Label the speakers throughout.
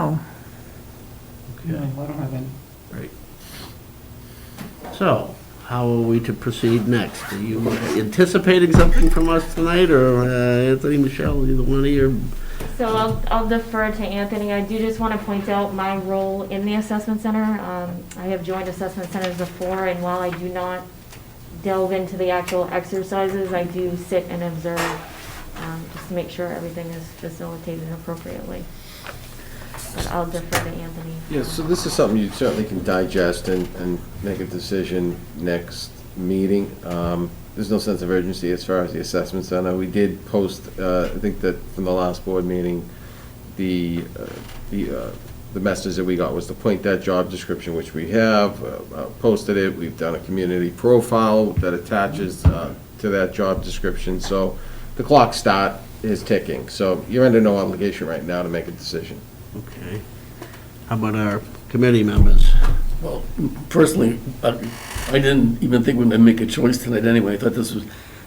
Speaker 1: Oh,
Speaker 2: No,
Speaker 3: Okay,
Speaker 2: I don't have any.
Speaker 3: right. So, how are we to proceed next? Are you anticipating something from us tonight, or uh, Anthony, Michelle, either one of you?
Speaker 4: So I'll, I'll defer to Anthony. I do just want to point out my role in the assessment center. Um, I have joined assessment centers before, and while I do not delve into the actual exercises, I do sit and observe, um, just to make sure everything is facilitated appropriately. But I'll defer to Anthony.
Speaker 5: Yeah, so this is something you certainly can digest and, and make a decision next meeting. Um, There's no sense of urgency as far as the assessments I know We did post, uh, I think that from the last board meeting, the, uh, the, uh, the message that we got was to point that job description, which we have, uh, uh, posted it. We've done a community profile that attaches uh, to that job description. So the clock start is ticking. So you're under no obligation right now to make a decision.
Speaker 3: Okay. How about our committee members?
Speaker 6: Well, personally, I I didn't even think we'd make a choice tonight anyway. I thought this was,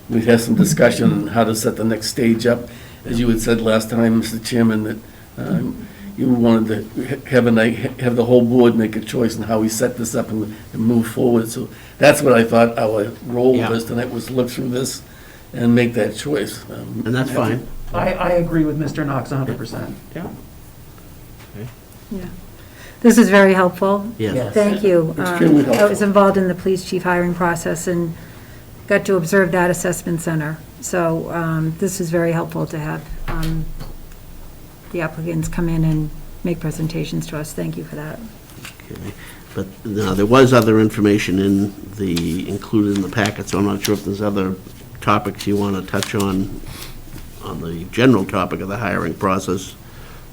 Speaker 6: we'd have some discussion on how to set the next stage up. As you had said last time, Mr. Chairman, that um, you wanted to ha- have a night, have the whole board make a choice on how we set this up and and move forward. So that's what I thought our role
Speaker 3: Yeah.
Speaker 6: was tonight, was look through this and make that choice. Um,
Speaker 3: And that's fine.
Speaker 2: I, I agree with Mr. Knox hundred percent.
Speaker 3: Yeah.
Speaker 1: yeah. This is very helpful.
Speaker 3: Yes.
Speaker 1: Thank you. Um,
Speaker 6: Extremely
Speaker 1: I was
Speaker 6: helpful.
Speaker 1: involved in the police chief hiring process and got to observe that assessment center. So um, this is very helpful to have um, the applicants come in and make presentations to us. Thank you for that.
Speaker 3: Okay. But now, there was other information in the, included in the packet, so I'm not sure if there's other topics you want to touch on, on the general topic of the hiring process,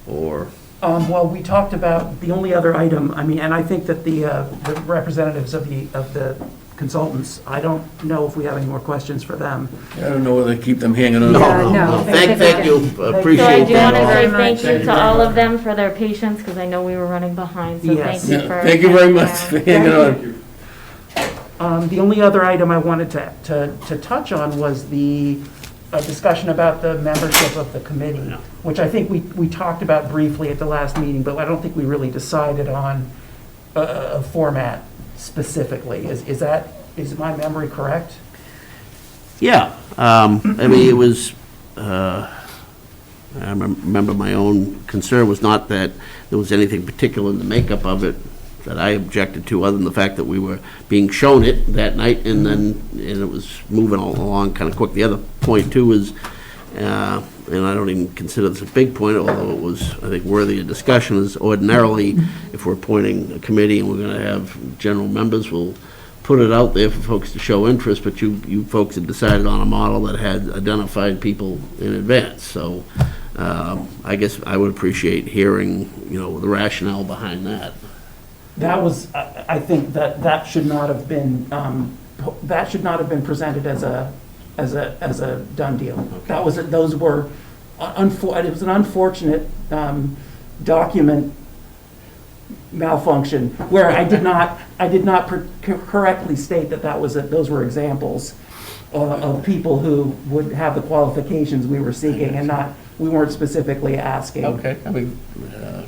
Speaker 3: or,
Speaker 2: Um, well, we talked about the only other item, I mean, and I think that the, uh, the representatives of the, of the consultants, I don't know if we have any more questions for them.
Speaker 6: I don't know whether to keep them hanging on.
Speaker 1: Yeah, no.
Speaker 3: thank, thank you,
Speaker 4: So I
Speaker 3: appreciate
Speaker 4: do want to
Speaker 3: that.
Speaker 4: say
Speaker 1: all.
Speaker 4: thank
Speaker 6: Thank
Speaker 4: you
Speaker 6: you
Speaker 4: to
Speaker 6: very
Speaker 4: all of them for their patience, because I know we were running behind, so
Speaker 2: Yes.
Speaker 4: thank you for.
Speaker 6: Yeah, Thank you very much for hanging
Speaker 2: Thank
Speaker 6: on.
Speaker 2: Um, the only other item I wanted to, to, to touch on was the, uh discussion about the membership of the committee, which I think we, we talked about briefly at the last meeting, but I don't think we really decided on a, a a format specifically. Is, is that, is my memory correct?
Speaker 3: Yeah, um, I mean, it was, uh, I remem- remember my own concern was not that there was anything particular in the makeup of it that I objected to, other than the fact that we were being shown it that night, and then, and it was moving all along kind of quick. The other point, too, is, uh, and I don't even consider this a big point, although it was, I think, worthy of discussion, is ordinarily, if we're appointing a committee and we're going to have general members, we'll put it out there for folks to show interest, but you, you folks had decided on a model that had identified people in advance, so um, I guess I would appreciate hearing, you know, the rationale behind that.
Speaker 2: That was, I I think that that should not have been, um, po- that should not have been presented as a, as a, as a done deal. That was, those were, unfor- it was an unfortunate um, document malfunction where I did not, I did not per- cor- correctly state that that was, a- those were examples uh, of people who would have the qualifications we were seeking and not, we weren't specifically asking.
Speaker 3: I mean.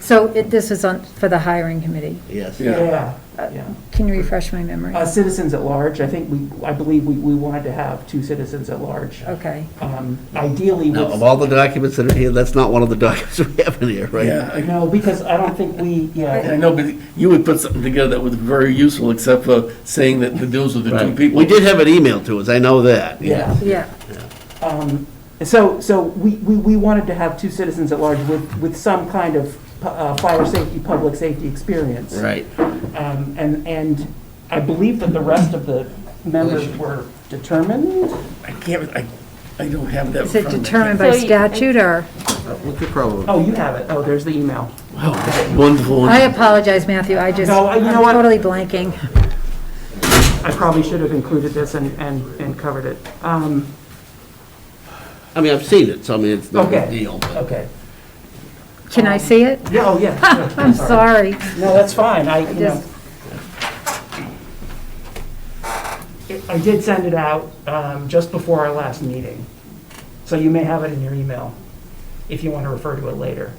Speaker 1: So it- this is on, for the hiring committee.
Speaker 3: Yes.
Speaker 6: Yeah.
Speaker 2: Yeah, yeah.
Speaker 1: Can you refresh my memory?
Speaker 2: Uh, Citizens at large, I think we, I believe we, we wanted to have two citizens at large.
Speaker 1: Okay.
Speaker 2: Um, Ideally
Speaker 3: Now, of
Speaker 2: with,
Speaker 3: all the documents that are here, that's not one of the documents we have in here, right?
Speaker 6: Yeah, I-
Speaker 2: no, because I don't think we,
Speaker 6: I
Speaker 2: yeah,
Speaker 6: know, but you would put something together that was very useful, except for saying that the deals with the two
Speaker 3: Right.
Speaker 6: people.
Speaker 3: We did have an email to us, I know that.
Speaker 2: yeah.
Speaker 1: Yeah,
Speaker 2: Um, So, so we, we, we wanted to have two citizens at large with, with some kind of pu- uh, fire safety, public safety experience.
Speaker 3: Right.
Speaker 2: Um, And, and I believe that the rest of the members were determined.
Speaker 6: I can't, I, I don't have that in
Speaker 1: is it
Speaker 6: front of me.
Speaker 1: determined by
Speaker 4: So you-
Speaker 1: statute or?
Speaker 5: We could probably
Speaker 2: Oh, you have it. Oh, there's the email.
Speaker 6: Wow, Wonderful.
Speaker 1: I apologize, Matthew, I just,
Speaker 2: No, I- you
Speaker 1: I'm
Speaker 2: know what?
Speaker 1: totally blanking.
Speaker 2: I probably should have included this and, and, and covered it. Um,
Speaker 3: I mean, I've seen it, so I mean, it's no big
Speaker 2: Okay.
Speaker 3: deal, but
Speaker 2: Okay.
Speaker 1: Can I see it?
Speaker 2: Yeah, oh, yeah. sure.
Speaker 1: I'm sorry.
Speaker 2: No, that's fine, I, you know.
Speaker 1: Just-
Speaker 2: It- I did send it out um, just before our last meeting, so you may have it in your email if you want to refer to it later.